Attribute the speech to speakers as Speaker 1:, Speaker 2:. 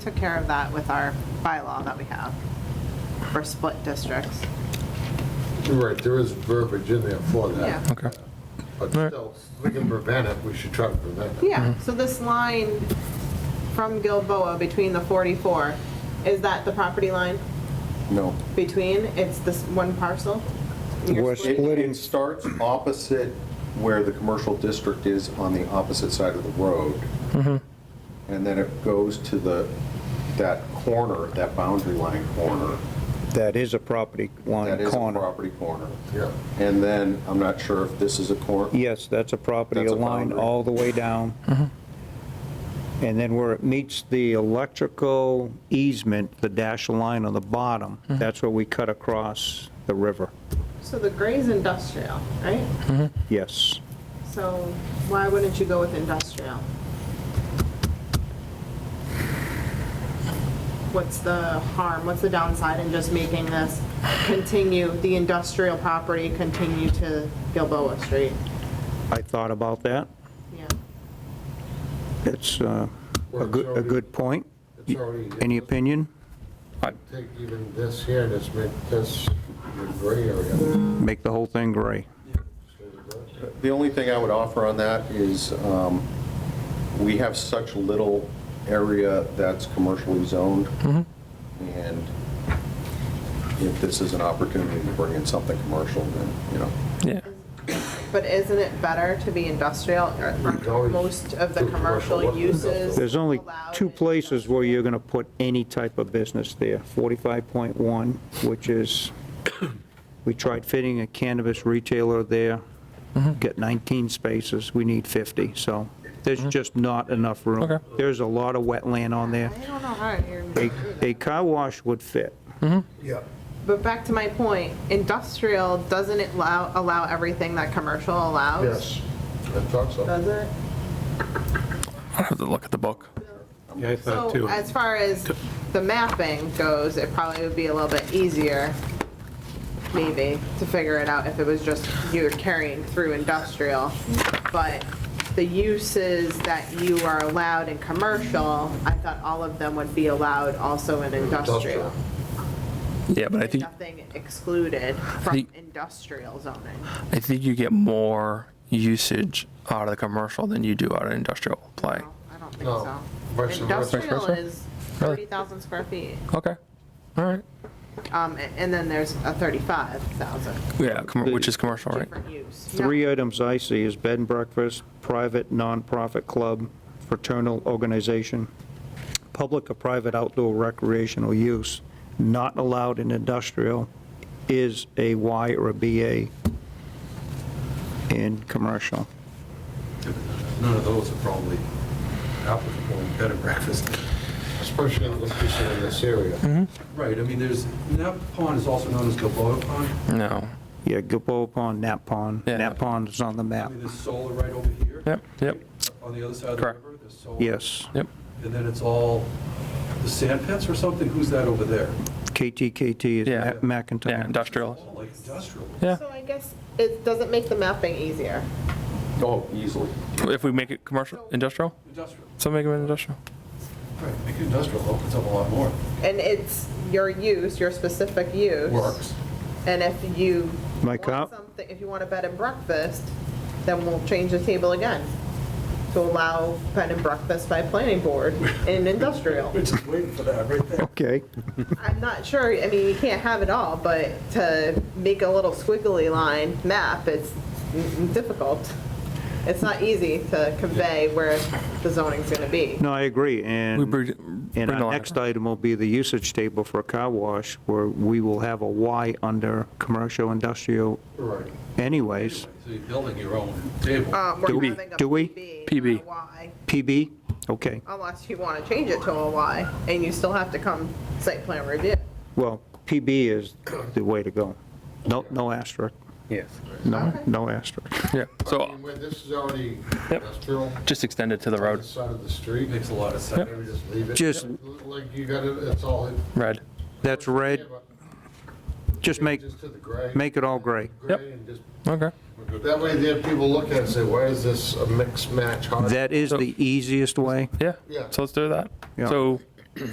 Speaker 1: took care of that with our bylaw that we have for split districts.
Speaker 2: Right, there is verbiage in there for that.
Speaker 1: Yeah.
Speaker 3: Okay.
Speaker 2: But
Speaker 3: Alright.
Speaker 2: still, if we can prevent it, we should try to prevent it.
Speaker 1: Yeah, so this line from Gilboa between the 44, is that the property line
Speaker 4: No.
Speaker 1: between? It's this one parcel? You're
Speaker 3: We're
Speaker 1: splitting-
Speaker 4: It
Speaker 3: splitting,
Speaker 4: it starts opposite where the commercial district is on the opposite side of the road. And then it goes to the, that corner, that boundary line corner.
Speaker 3: that is a property
Speaker 4: That
Speaker 3: line
Speaker 4: is a
Speaker 3: corner.
Speaker 4: property corner.
Speaker 2: Yeah.
Speaker 4: And then, I'm not sure if this is a corner.
Speaker 3: Yes, that's a property
Speaker 4: That's a
Speaker 3: line
Speaker 4: boundary.
Speaker 3: all the way down.
Speaker 4: Mm-hmm.
Speaker 3: And then where it meets the electrical easement, the dashed line on the bottom,
Speaker 4: Mm-hmm.
Speaker 3: that's where we cut across the river.
Speaker 1: So the gray's industrial, right?
Speaker 3: Yes.
Speaker 1: So why wouldn't you go with industrial? What's the harm, what's the downside in just making this continue, the industrial property continue to Gilboa Street?
Speaker 3: I thought about that.
Speaker 1: Yeah,
Speaker 3: It's uh,
Speaker 2: Well,
Speaker 3: a
Speaker 2: it's
Speaker 3: good, a
Speaker 2: already-
Speaker 3: good point.
Speaker 2: It's already.
Speaker 3: Any opinion?
Speaker 2: Take even this here, and just make this the gray area.
Speaker 3: Make the whole thing gray.
Speaker 4: The only thing I would offer on that is, um, we have such little area that's commercially zoned. And if this is an opportunity to bring in something commercial, then, you know,
Speaker 5: Yeah.
Speaker 1: but isn't it better to be industrial? Aren't
Speaker 2: always
Speaker 1: Most of the
Speaker 2: do commercial
Speaker 1: commercial
Speaker 2: work with
Speaker 1: uses.
Speaker 2: industrial.
Speaker 3: There's only
Speaker 1: allowed
Speaker 3: two
Speaker 1: in
Speaker 3: places where
Speaker 1: industrial?
Speaker 3: you're going to put any type of business there. 45.1, which is, we tried fitting a cannabis retailer there, get 19 spaces, we need 50, so there's just not enough room.
Speaker 5: Okay.
Speaker 3: There's a lot of wetland on there.
Speaker 1: I don't know how you're. gonna
Speaker 3: A
Speaker 1: do that.
Speaker 3: a car wash would fit.
Speaker 2: Yeah.
Speaker 1: But back to my point, industrial, doesn't it allow, allow everything that commercial allows?
Speaker 2: Yes, I thought so.
Speaker 1: Does it?
Speaker 5: I'll have to look at the book.
Speaker 6: Yeah, I thought
Speaker 1: So
Speaker 6: too.
Speaker 1: as far as the mapping goes, it probably would be a little bit easier, maybe, to figure it out if it was just you were carrying through industrial. But the uses that you are allowed in commercial, I thought all of them would be allowed also in industrial.
Speaker 2: Industrial.
Speaker 5: Yeah, but I think,
Speaker 1: Nothing excluded from
Speaker 5: think-
Speaker 1: industrial zoning.
Speaker 5: I think you get more usage out of the commercial than you do out of industrial play.
Speaker 1: No, I don't think
Speaker 2: No,
Speaker 1: so.
Speaker 2: vice versa.
Speaker 1: Industrial
Speaker 5: Vice versa?
Speaker 1: is
Speaker 5: Really?
Speaker 1: 30,000 square feet,
Speaker 5: Okay, all right.
Speaker 1: um, a- and then there's a 35,000
Speaker 5: Yeah, com- which is commercial, right?
Speaker 1: different use. No.
Speaker 3: Three items I see is bed and breakfast, private nonprofit club, fraternal organization, public or private outdoor recreational use, not allowed in industrial, is a Y or a BA in commercial.
Speaker 7: None of those are probably applicable in bed and breakfast.
Speaker 2: Especially in this piece in this
Speaker 3: Mm-hmm.
Speaker 2: area.
Speaker 7: Right, I mean, there's, that pond is also known as Gilboa Pond.
Speaker 5: No.
Speaker 3: Yeah, Gilboa Pond, Nap Pond.
Speaker 5: Yeah.
Speaker 3: Nap Pond is on the
Speaker 7: I
Speaker 3: map.
Speaker 7: mean, there's solar right over here.
Speaker 5: Yep, yep,
Speaker 7: On the other side of the
Speaker 5: Correct.
Speaker 7: river, there's solar.
Speaker 3: Yes,
Speaker 5: yep.
Speaker 7: And then it's all the sand pits or something? Who's that over there?
Speaker 3: KTKT is
Speaker 5: Yeah.
Speaker 3: Ma- McIntyre.
Speaker 5: Yeah, industrial.
Speaker 7: All like industrial.
Speaker 5: Yeah.
Speaker 1: So I guess it doesn't make the mapping easier.
Speaker 4: oh, easily.
Speaker 5: If we make it commercial, industrial,
Speaker 7: Industrial,
Speaker 5: so make it industrial.
Speaker 7: right, I think industrial opens up a lot more.
Speaker 1: And it's your use, your specific use.
Speaker 7: Works.
Speaker 1: And if you
Speaker 3: My
Speaker 1: want
Speaker 3: cop-
Speaker 1: something, if you want a bed and breakfast, then we'll change the table again to allow bed and breakfast by planning board in industrial.
Speaker 7: We're just waiting for that right there.
Speaker 3: Okay.
Speaker 1: I'm not sure, I mean, you can't have it all, but to make a little squiggly line map, it's difficult. It's not easy to convey where the zoning's gonna be.
Speaker 3: No, I agree,
Speaker 5: We
Speaker 3: and,
Speaker 5: bring-
Speaker 3: and
Speaker 5: bring the
Speaker 3: our
Speaker 5: line
Speaker 3: next
Speaker 5: across.
Speaker 3: item will be the usage table for a car wash, where we will have a Y under commercial, industrial
Speaker 2: Right.
Speaker 3: anyways.
Speaker 7: So you're building your own table.
Speaker 1: Um, we're
Speaker 3: Do we-
Speaker 1: having a
Speaker 3: do we?
Speaker 1: PB, not a
Speaker 5: PB.
Speaker 1: Y,
Speaker 3: PB, okay,
Speaker 1: unless you wanna change it to a Y, and you still have to come site plan review.
Speaker 3: well, PB is the way to go. No, no asterisk. Yes. No,
Speaker 1: Okay.
Speaker 3: no asterisk.
Speaker 5: Yeah,
Speaker 2: I
Speaker 5: so
Speaker 2: mean, where this is already
Speaker 5: Yep.
Speaker 2: industrial,
Speaker 5: just extend it to the
Speaker 2: on the
Speaker 5: road,
Speaker 2: side of the street,
Speaker 7: Makes a lot of sense.
Speaker 2: maybe just leave it.
Speaker 3: Just-
Speaker 2: Like you got it, it's all.
Speaker 5: red.
Speaker 3: That's red, just make,
Speaker 2: Just to the gray.
Speaker 3: make it all gray.
Speaker 5: Yep.
Speaker 2: Gray and just
Speaker 5: Okay.
Speaker 2: That way there, people look at it and say, why is this a mixed match? How-
Speaker 3: That is the easiest way.
Speaker 5: Yeah,
Speaker 2: Yeah.
Speaker 5: so let's do that.
Speaker 3: Yeah.
Speaker 5: So